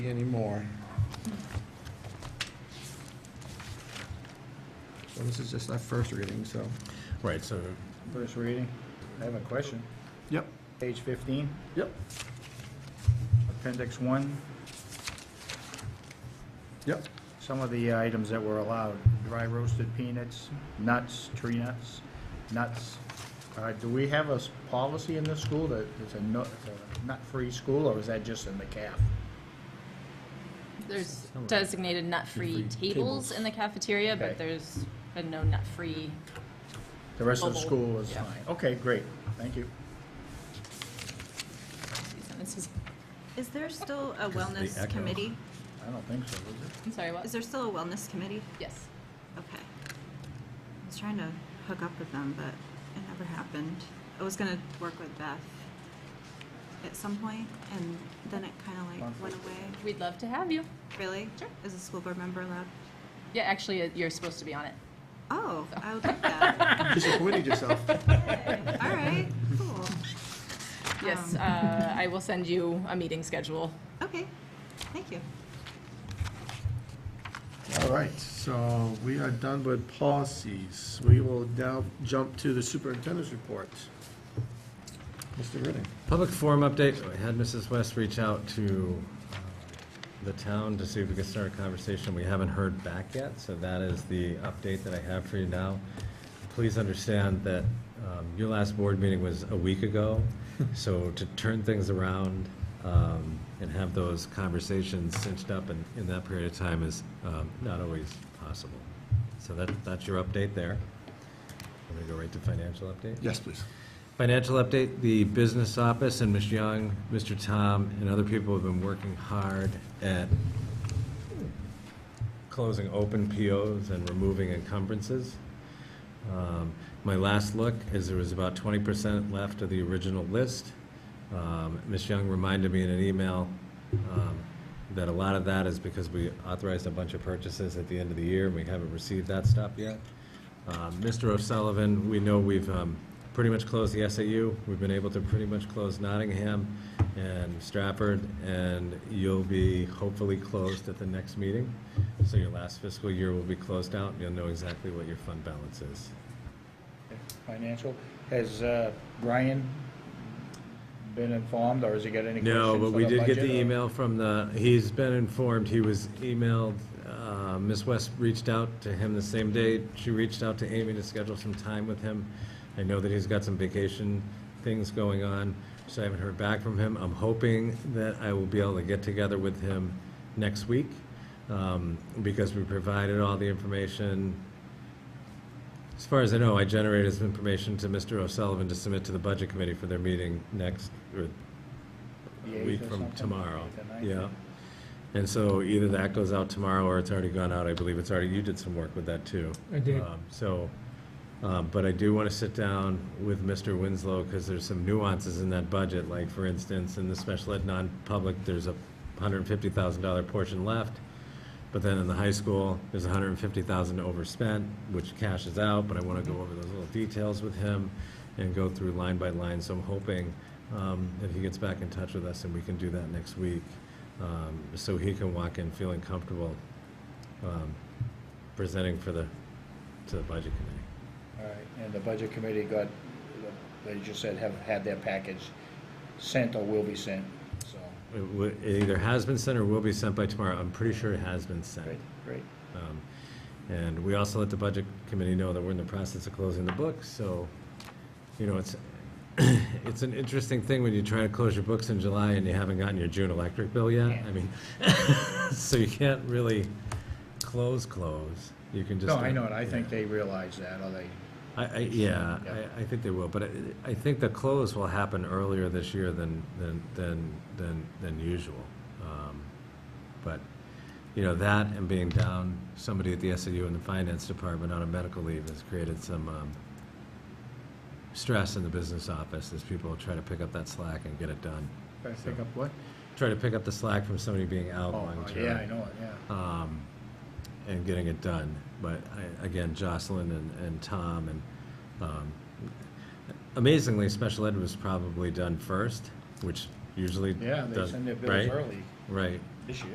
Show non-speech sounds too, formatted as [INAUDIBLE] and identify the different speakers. Speaker 1: anymore. So this is just our first reading, so.
Speaker 2: Right, so,
Speaker 3: First reading. I have a question.
Speaker 1: Yep.
Speaker 3: Page 15,
Speaker 1: Yep.
Speaker 3: Appendix 1,
Speaker 1: Yep.
Speaker 3: some of the items that were allowed, dry roasted peanuts, nuts, tree nuts, nuts. Uh, Do we have a s- policy in this school that it's a nut, it's a nut-free school, or is that just in the CAF?
Speaker 4: There's
Speaker 2: Somewhere.
Speaker 4: designated nut-free
Speaker 2: Nut-free
Speaker 4: tables in the cafeteria,
Speaker 3: Okay.
Speaker 4: but there's been no nut-free.
Speaker 3: The rest of the
Speaker 4: Bubble,
Speaker 3: school is
Speaker 4: yeah.
Speaker 3: fine. Okay, great, thank you.
Speaker 4: sentences.
Speaker 5: Is there still a
Speaker 2: Because of the
Speaker 5: wellness
Speaker 2: echo.
Speaker 5: committee?
Speaker 3: I don't think so,
Speaker 4: [LAUGHS]
Speaker 3: is
Speaker 4: I'm sorry,
Speaker 5: Is
Speaker 4: what?
Speaker 5: there still a wellness committee?
Speaker 4: Yes.
Speaker 5: Okay. I was trying to hook up with them, but it never happened. I was gonna work with Beth at some point, and then it kinda like went away.
Speaker 4: We'd love to have you.
Speaker 5: Really?
Speaker 4: Sure.
Speaker 5: Is a school board member allowed?
Speaker 4: Yeah, actually, uh, you're supposed to be on it.
Speaker 5: Oh, I would
Speaker 4: [LAUGHS]
Speaker 5: like that.
Speaker 1: Disappointed yourself.
Speaker 5: All right, cool.
Speaker 4: Yes,
Speaker 5: Um,
Speaker 4: uh, I will send you a meeting schedule.
Speaker 5: Okay, thank you.
Speaker 1: All right, so we are done with policies. We will now jump to the superintendent's report. Mr. Reading.
Speaker 2: public forum update, I had Mrs. West reach out to uh, the town to see if we could start a conversation. We haven't heard back yet, so that is the update that I have for you now. Please understand that um, your last board meeting was a week ago, so to turn things around um, and have those conversations cinched up in, in that period of time is um, not always possible. So that, that's your update there. I'm gonna go right to financial update.
Speaker 1: Yes, please.
Speaker 2: Financial update, the business office and Ms. Young, Mr. Tom, and other people have been working hard at closing open POs and removing encumbrances. Um, My last look is there was about twenty percent left of the original list. Um, Ms. Young reminded me in an email um, that a lot of that is because we authorized a bunch of purchases at the end of the year, and we haven't received that stuff yet. Um, Mr. O'Sullivan, we know we've um, pretty much closed the SAU. We've been able to pretty much close Nottingham and Stratford, and you'll be hopefully closed at the next meeting. So your last fiscal year will be closed out, and you'll know exactly what your fund balance is.
Speaker 3: it? Financial, has uh, Brian been informed, or has he got any questions
Speaker 2: No, but
Speaker 3: for
Speaker 2: we
Speaker 3: the
Speaker 2: did get
Speaker 3: budget,
Speaker 2: the
Speaker 3: or-
Speaker 2: email from the, he's been informed, he was emailed, uh, Ms. West reached out to him the same day. She reached out to Amy to schedule some time with him. I know that he's got some vacation things going on, so I haven't heard back from him. I'm hoping that I will be able to get together with him next week, um, because we provided all the information as far as I know, I generated some information to Mr. O'Sullivan to submit to the Budget Committee for their meeting next, or
Speaker 3: The
Speaker 2: a
Speaker 3: eighth
Speaker 2: week
Speaker 3: or
Speaker 2: from
Speaker 3: something?
Speaker 2: tomorrow.
Speaker 3: The ninth?
Speaker 2: Yeah. And so either that goes out tomorrow, or it's already gone out, I believe it's already, you did some work with that too. I did. So, um, but I do want to sit down with Mr. Winslow, because there's some nuances in that budget, like, for instance, in the special ed non-public, there's a hundred and fifty thousand dollar portion left, but then in the high school, there's a hundred and fifty thousand overspent, which cashes out, but I want to go over those little details with him and go through line by line, so I'm hoping um, if he gets back in touch with us and we can do that next week, um, so he can walk in feeling comfortable um, presenting for the, to the budget committee.
Speaker 3: All right, and the budget committee got, they just said have had their package sent or will be sent, so.
Speaker 2: It wa- It either has been sent or will be sent by tomorrow. I'm pretty sure it has been
Speaker 3: Great,
Speaker 2: sent.
Speaker 3: great.
Speaker 2: Um, And we also let the budget committee know that we're in the process of closing the books, so, you know, it's, [CLEARS THROAT] it's an interesting thing when you try to close your books in July and you haven't gotten your June electric bill yet.
Speaker 3: Yeah.
Speaker 2: I mean, [LAUGHS] so you can't really close, close. You can just.
Speaker 3: No, I know it, I
Speaker 2: Yeah.
Speaker 3: think they realize that, or they,
Speaker 2: I, I, yeah,
Speaker 3: Yeah.
Speaker 2: I, I think they will, but I, I think the close will happen earlier this year than, than, than, than, than usual. Um, But, you know, that and being down somebody at the SAU in the finance department on a medical leave has created some, um, stress in the business office as people try to pick up that slack and get it done.
Speaker 3: better pick up what?
Speaker 2: Try to pick up the slack from somebody being out
Speaker 3: Oh,
Speaker 2: long term
Speaker 3: yeah, I know it, yeah.
Speaker 2: um, and getting it done. But I, again, Jocelyn and, and Tom and, um, amazingly, special ed was probably done first, which usually
Speaker 3: Yeah,
Speaker 2: does,
Speaker 3: they send their bills
Speaker 2: right?
Speaker 3: early
Speaker 2: Right.
Speaker 3: this year.